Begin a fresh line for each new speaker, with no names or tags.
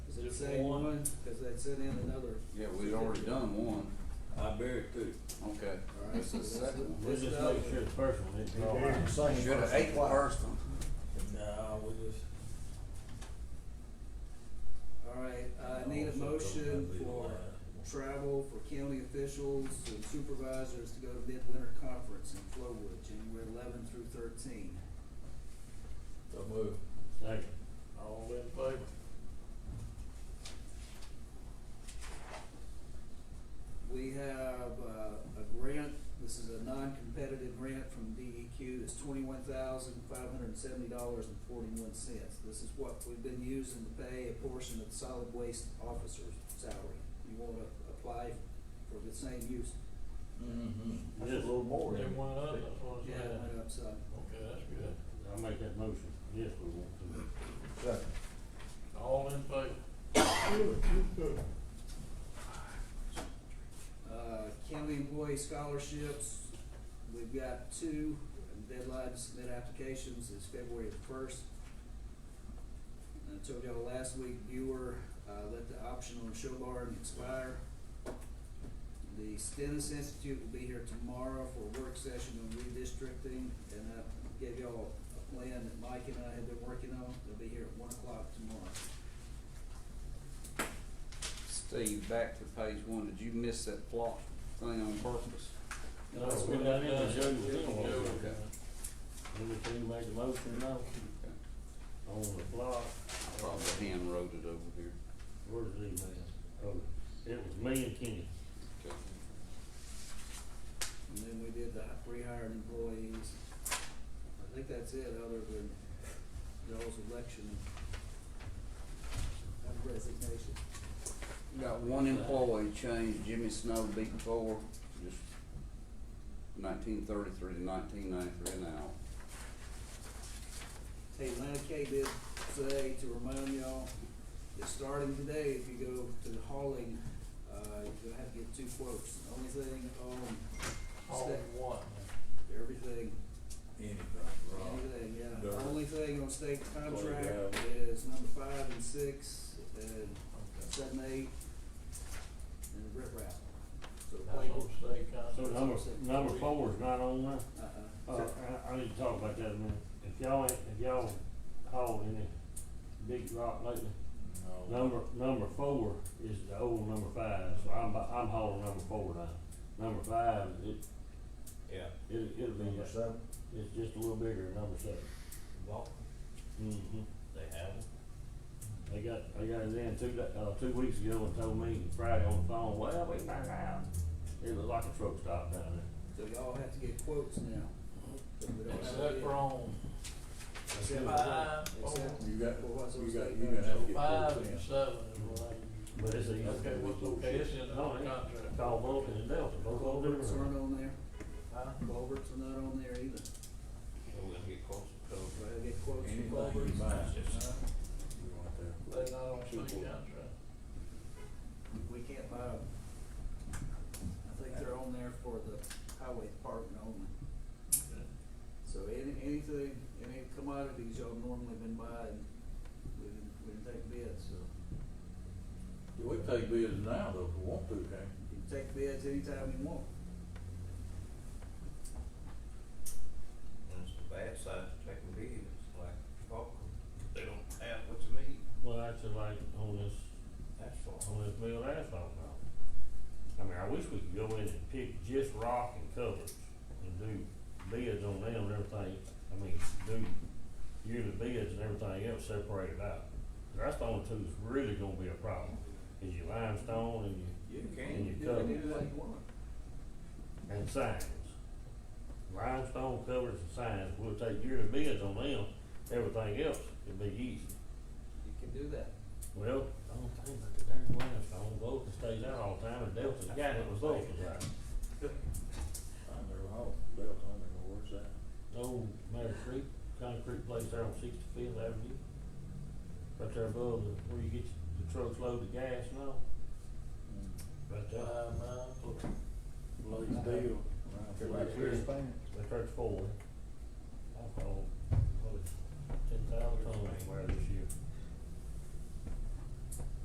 the same
One.
one, cause they sent in another.
Yeah, we've already done one,
I buried two.
okay,
Alright,
that's the
so
second one.
Let's
This
just
is the-
make sure the first one isn't all
They're the
right.
same
Should have
person
ate the
twice.
first one.
No, we just.
Alright, uh, I need a motion for travel for county officials and supervisors to go to Midwinter Conference in Flowood, January eleven through thirteen.
So move. Second. All in favor?
We have uh, a grant, this is a non-competitive grant from DEQ, it's twenty-one thousand five hundred and seventy dollars and forty-one cents. This is what we've been using to pay a portion of the solid waste officer's salary. You wanna apply for the same use? Mm-hmm.
That's a little more.
They
isn't it?
want it up, that's what I'm
Yeah,
saying.
it went up some.
Okay, that's good.
I'll make that motion. Yes, we want to.
Second.
All in favor?
Uh, county employee scholarships, we've got two, and deadline to submit applications is February the first. I told y'all last week, Buer, uh, let the option on show barn expire. The Stennis Institute will be here tomorrow for a work session on redistricting, and I gave y'all a plan that Mike and I have been working on, they'll be here at one o'clock tomorrow.
Steve, back to page one, did you miss that plot thing on purpose?
No, that's
we
what
got
I-
it. Show you the film.
Okay.
Anything make the motion now?
Okay.
On the block.
Probably hand wrote it over here.
Where's the email? Oh, it was me and Kenny.
Okay.
And then we did the rehired employees. I think that's it, other than y'all's election and resignation.
Got one employee changed, Jimmy Snow beat four, just nineteen thirty-three to nineteen ninety-three an hour.
Hey, Lana Kay did say to remind y'all, that starting today, if you go to the hauling, uh, you're gonna have to get two quotes. The Only thing on
All
state,
in one.
everything,
Anything, right.
Anything, yeah.
Dirt.
Only thing on state contract
Playground.
is number five and six, and seven, eight, and rip rap. So the
That's
playground,
what state con-
So number, number four is not on there?
uh-uh.
Uh, I, I need to talk about that a minute. If y'all, ain't- if y'all hauled any big rock lately,
No.
number, number four is the old number five, so I'm, I'm hauling number four now. Number five, it,
Yeah.
it, it'll be,
Number seven.
it's just a little bigger than number seven.
Vulcan,
Mm-hmm.
they have them.
They got, they got it in two, da- uh, two weeks ago and told me Friday on the phone, well, we found out. It was like a truck stop down there.
So y'all have to get quotes now. So we don't have to
Except
get-
for on
Except for-
five, four,
Except
You got-
for what's on
you got-
state
you
contract.
got-
so five and seven is what
But it's
I
easy.
use. Okay, what's okay, it's in the
No, it ain't.
contract.
It's all Vulcan and Delta, both of them.
Culverts aren't on there,
Huh?
culverts are not on there either.
So we're gonna get close to cover.
So I gotta get quotes
Anything
from
you
culverts.
buy, just-
Uh,
you want that.
They not on state contract.
We can't buy them. I think they're on there for the highway department only.
Okay.
So any, anything, any commodities y'all normally been buying, we didn't, we didn't take bids, so.
Yeah, We take bids now though, if we want to, okay?
You can take bids anytime you want.
And it's the bad side to taking bids, like Vulcan, they don't have what you need,
Well, that's just like on this,
that's all.
on this mill asphalt now. I mean, I wish we could go in and pick just rock and covers and do bids on them and everything. I mean, do yearly bids and everything else separated out. That's the only two that's really gonna be a problem, is your limestone and your
You can,
And you
You
cover
can do what you want.
and signs. Limestone covers and signs, we'll take yearly bids on them, everything else, it'd be easy.
You can do that.
Well, I don't think about the darn limestone, Vulcan stays out all the time, and Delta's got it with Vulcan's out.
I never hauled, Belt, I never know where's that.
Old Mary Creek, concrete place there on Sixty-Fifth Avenue. Right there above the, where you get the trucks loaded with gas and all,
Mm.
right there,
Five miles,
Blaze deal.
Right
Right
here.
here. right there at the Ford. I called, what, ten thousand tons where they